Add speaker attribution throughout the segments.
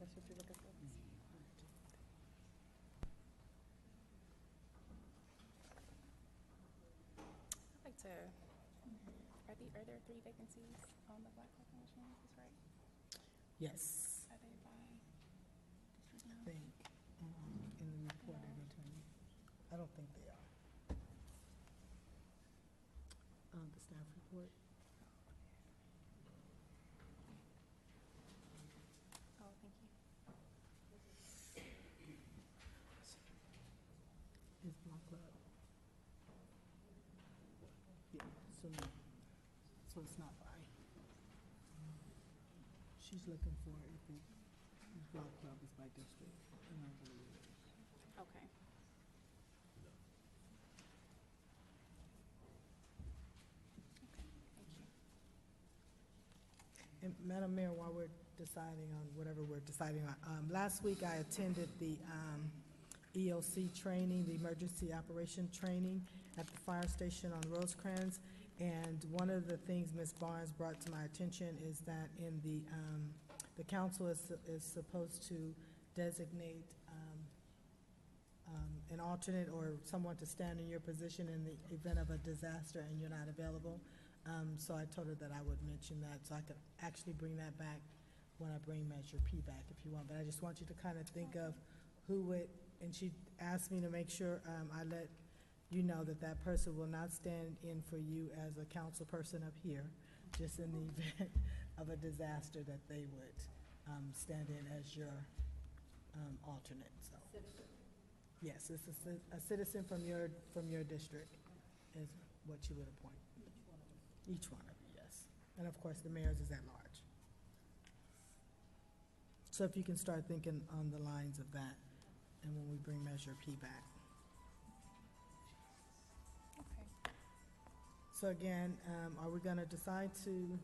Speaker 1: That's what you're looking for?
Speaker 2: I'd like to, are the, are there three vacancies on the Black Hawk Commission, is this right?
Speaker 1: Yes.
Speaker 2: Are they by district
Speaker 1: I
Speaker 2: now?
Speaker 1: think, um, in the report I read to you, I don't think they are. Um, the staff report?
Speaker 2: Oh, thank you.
Speaker 1: Is Block Club. Yeah, so, no. so it's not by. She's looking for if it, if Block Club is by district, and I believe it is.
Speaker 2: Okay.
Speaker 1: And Madam Mayor, while we're deciding on whatever we're deciding on, um, last week I attended the, um, EOC training, the emergency operation training at the fire station on Rosecrans. And one of the things Ms. Barnes brought to my attention is that in the, um, the council is, is supposed to designate, um, um, an alternate or someone to stand in your position in the event of a disaster and you're not available. Um, so I told her that I would mention that, so I could actually bring that back when I bring Measure P back, if you want. But I just want you to kind of think of who would, and she asked me to make sure, um, I let you know that that person will not stand in for you as a council person up here, just in the event of a disaster, that they would, um, stand in as your, um, alternate, so. Yes, it's a ci- a citizen from your, from your district is what you would appoint. Each one of you, yes. And of course, the mayor's is at large. So if you can start thinking on the lines of that, and when we bring Measure P back.
Speaker 2: Okay.
Speaker 1: So again, um, are we gonna decide to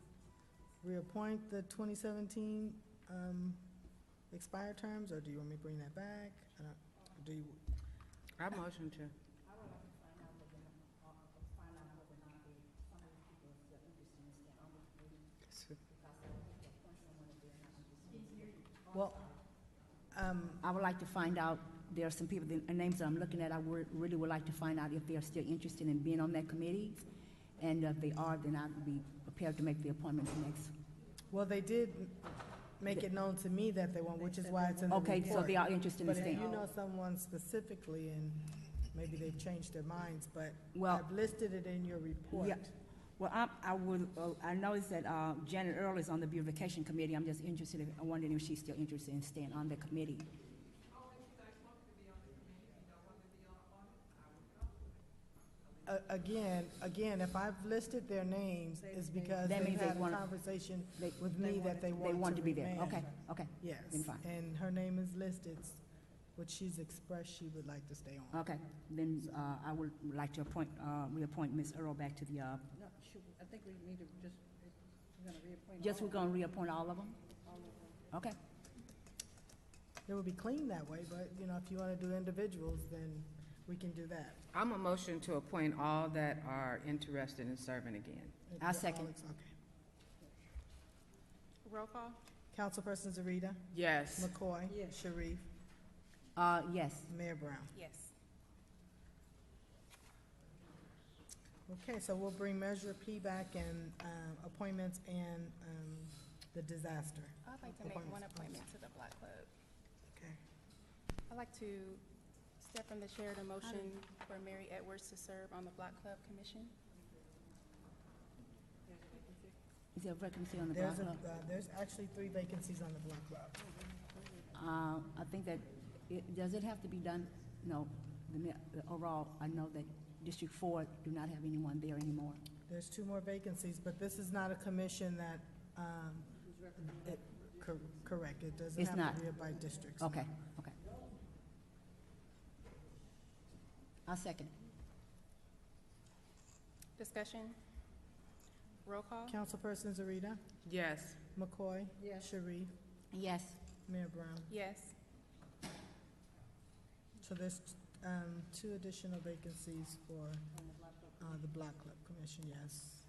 Speaker 1: reappoint the twenty seventeen, um, expired terms, or do you want me to bring that back? I don't, do you,
Speaker 3: I motion to.
Speaker 4: uh,
Speaker 1: well, um,
Speaker 3: I would like to find out, there are some people, the names that I'm looking at, I would, really would like to find out if they are still interested in being on that committee. And if they are, then I'd be prepared to make the appointment for next.
Speaker 1: well, they did make it known to me that they won't, which is why it's in the report.
Speaker 3: Okay, so they are interested in
Speaker 1: But if
Speaker 3: staying.
Speaker 1: you know someone specifically, and maybe they've changed their minds, but
Speaker 3: Well-
Speaker 1: I've listed it in your report.
Speaker 3: Oh, Yeah. Well, I, I would, uh, I noticed that uh, Janet Earl is on the beautification committee. I'm just interested, in- I'm wondering if she's still interested in staying on the committee.
Speaker 1: A- Again, again, if I've listed their names, it's because
Speaker 3: That
Speaker 1: they
Speaker 3: means they
Speaker 1: had a
Speaker 3: wanna-
Speaker 1: conversation
Speaker 3: they-
Speaker 1: with me that they want to remain.
Speaker 3: want to be there. Okay, okay,
Speaker 1: Yes,
Speaker 3: Then fine.
Speaker 1: and her name is listed, which she's expressed she would like to stay on.
Speaker 3: okay. Then uh, I would like to appoint, uh, reappoint Ms. Earl back to the, uh,
Speaker 5: No, should, I think we need to just, we're gonna reappoint.
Speaker 3: just
Speaker 5: all
Speaker 3: we're gonna reappoint all of them? Okay.
Speaker 1: It would be clean that way, but, you know, if you want to do individuals, then we can do that.
Speaker 4: I'm a motion to appoint all that are interested in serving again.
Speaker 1: If
Speaker 3: I'll
Speaker 1: we're all
Speaker 3: second.
Speaker 1: ex- Okay.
Speaker 2: Roll call?
Speaker 1: Councilperson Zarita,
Speaker 4: Yes.
Speaker 1: McCoy.
Speaker 5: Yes.
Speaker 1: Sharif,
Speaker 3: Uh, yes.
Speaker 1: Mayor Brown.
Speaker 2: Yes.
Speaker 1: Okay, so we'll bring Measure P back and um, appointments and um, the disaster.
Speaker 2: I'd like to make one appointment to the Black Club.
Speaker 1: Okay.
Speaker 2: I'd like to step from the chair to motion for Mary Edwards to serve on the Black Club Commission.
Speaker 3: Is there a vacancy on the block
Speaker 1: There's, a-
Speaker 3: club?
Speaker 1: uh, there's actually three vacancies on the block club.
Speaker 3: Uh, I think that, it, does it have to be done? No, the, mi- the overall, I know that District Four do not have anyone there anymore.
Speaker 1: There's two more vacancies, but this is not a commission that, um, it- cor- correct, it doesn't
Speaker 3: It's
Speaker 1: have
Speaker 3: not. Oh.
Speaker 1: to be by districts.
Speaker 3: Okay, okay. I second.
Speaker 2: Discussion? Roll call?
Speaker 1: Councilperson Zarita,
Speaker 4: Yes.
Speaker 1: McCoy.
Speaker 5: Yes.
Speaker 1: Sharif,
Speaker 3: Yes.
Speaker 1: Mayor Brown.
Speaker 2: Yes.
Speaker 1: So there's um, two additional vacancies for uh, the block club commission, yes.